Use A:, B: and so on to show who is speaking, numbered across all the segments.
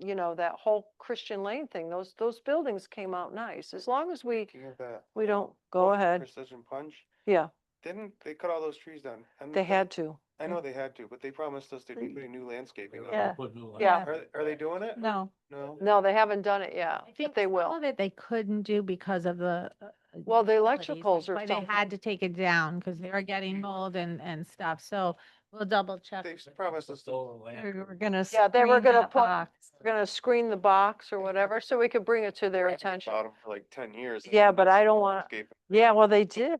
A: you know, that whole Christian Lane thing, those, those buildings came out nice. As long as we,
B: Speaking of that.
A: we don't, go ahead.
B: Precision punch,
A: Yeah,
B: didn't, they cut all those trees down. and
A: they had to.
B: I know they had to, but they promised us they'd be putting new landscaping on.
C: Yeah.
A: Yeah.
B: Are, are they doing it?
C: No.
B: No?
A: No, they haven't done it yet,
C: I
A: but
C: think
A: they
C: some
A: will.
C: Of it they couldn't do because of the. uh,
A: Well, the
C: utilities,
A: electricals
C: that's
A: are
C: why They
A: something.
C: had to take it down because they were getting mold and, and stuff. So we'll double check.
B: They promised us.
C: We're we're gonna.
A: Yeah, they were
C: screen
A: gonna
C: that
A: put-
C: box.
A: We're gonna screen the box or whatever, so we could bring it to their attention.
B: Bottom for like ten years. and
A: Yeah, but I don't wanna-
B: landscaping.
A: Yeah, well, they did.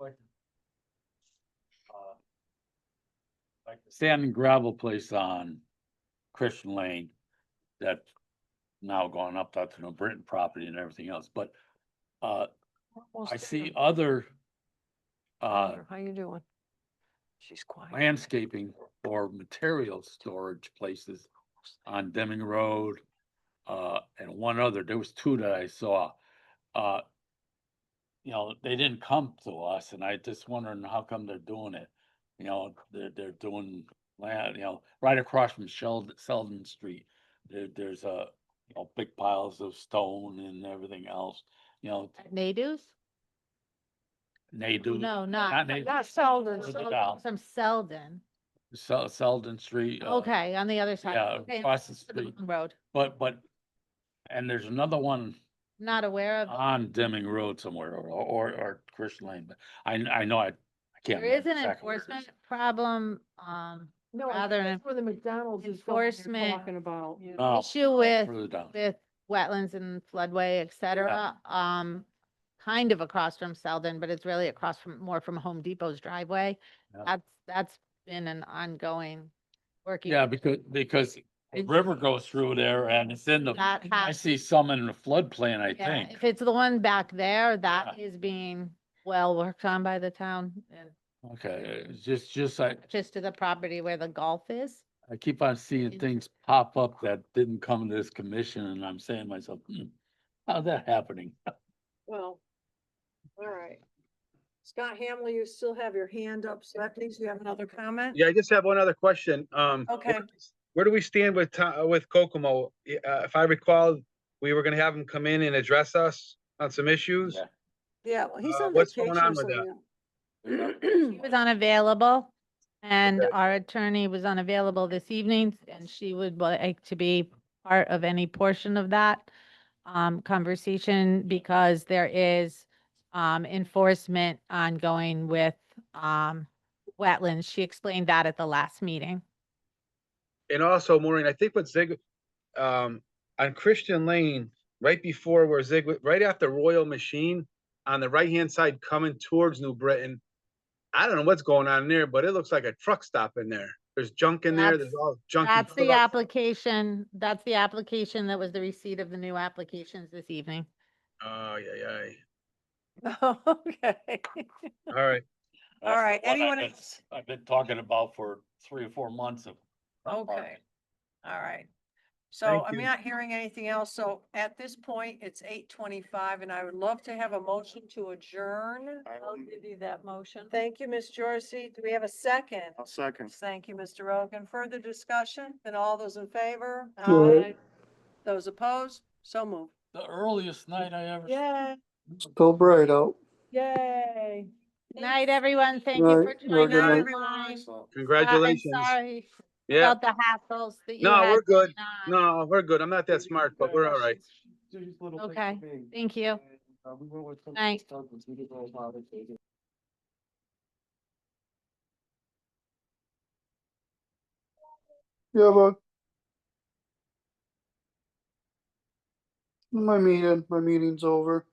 B: uh,
D: Like the Sand and gravel place on Christian Lane, that's now gone up, that's New Britain property and everything else, but uh,
A: Almost
D: I
A: there.
D: see other uh,
A: How you doing? She's quiet.
D: landscaping or material storage places on Deming Road, uh, and one other, there was two that I saw. Uh, you know, they didn't come to us and I just wondering how come they're doing it. You know, they're, they're doing land, you know, right across from Sheldon, Sheldon Street. There, there's a, you know, big piles of stone and everything else, you know,
C: Nadeau's?
D: and they do.
C: No,
D: Not
C: not.
D: Nadeau's.
A: Not Selden.
D: Put it down.
C: Some Selden.
D: Sel- Sheldon Street. uh,
C: Okay, on the other side.
D: Yeah,
C: Okay,
D: across the
C: to the
D: street.
C: long Road.
D: But, but, and there's another one
C: Not aware of.
D: on Deming Road somewhere or, or, or Christian Lane, but I, kn- I know I, I can't.
C: There is
D: remember
C: an
D: exactly where it is.
C: enforcement problem, um,
A: No,
C: Rather than
A: where the McDonald's
C: is going, you're enforcement. talking
A: about.
D: No,
C: issue with
D: Oh, further down.
C: with wetlands and floodway, et cetera, um, kind of across from Selden, but it's really across from, more from Home Depot's driveway.
D: Yeah.
C: That's, that's been an ongoing working.
D: Yeah, because, because the
C: It's-
D: river goes through there and it's in the,
C: That
D: I
C: has,
D: see some in the floodplain, I
C: yeah,
D: think.
C: if it's the one back there, that is being well worked on by the town and
D: Okay, it's just, just I,
C: just to the property where the golf is.
D: I keep on seeing
C: It's-
D: things pop up that didn't come to this commission and I'm saying to myself, hmm, how's that happening?
E: Well, all right. Scott Hamley, you still have your hand up, so that means you have another comment?
F: Yeah, I just have one other question. Um. where-
E: Okay.
F: Where do we stand with, Ta- uh, with Kokomo? I- Uh, if I recall, we were gonna have him come in and address us on some issues.
D: Yeah.
E: Yeah, well, he's
F: Uh,
E: on
F: what's going
E: vacation.
F: on with
E: so yeah.
C: He was unavailable and
F: Okay.
C: our attorney was unavailable this evening and she would like to be part of any portion of that um, conversation because there is um, enforcement ongoing with um, wetlands. She explained that at the last meeting.
F: And also Maureen, I think with Zig, um, on Christian Lane, right before where Zig, right after Royal Machine, on the right-hand side coming towards New Britain. I don't know what's going on there, but it looks like a truck stop in there. There's junk in there. There's
C: That's-
F: all junky.
C: That's the
F: trucks.
C: application, that's the application that was the receipt of the new applications this evening.
F: Oh, yeah, yeah.
A: Okay.
F: All
C: Uh,
F: right.
E: All
D: That's
E: right,
D: what I've
E: anyone
D: been-
E: else?
D: I've been talking about for three or four months of. of
E: Okay.
D: parking.
E: All right. So
F: Thank
E: I'm
F: you.
E: not hearing anything else. So at this point, it's eight twenty-five and I would love to have a motion to adjourn.
B: I
A: I'll
B: will-
A: give you that motion.
E: Thank you, Ms. Jorsey. Do we have a second?
B: I'll second.
E: Thank you, Mr. Rogan. Further discussion? Then all those in favor? Aye. Those opposed? So moved.
D: The earliest night I ever.
E: Yay,
G: Go bright out.
E: yay.
C: Good Night, everyone. Thank you for
G: Night. Well,
C: joining
G: good night.
C: us. Uh,
E: Everyone.
B: Excellent.
F: Congratulations.
C: Sorry
F: Yeah.
C: about the hassles that you
F: No,
C: had.
F: we're good.
C: going on.
F: No, we're good. I'm not that smart, but we're all right.
C: Okay. Thank you. Night.
B: Night.
G: You have a. My meeting, my meeting's over.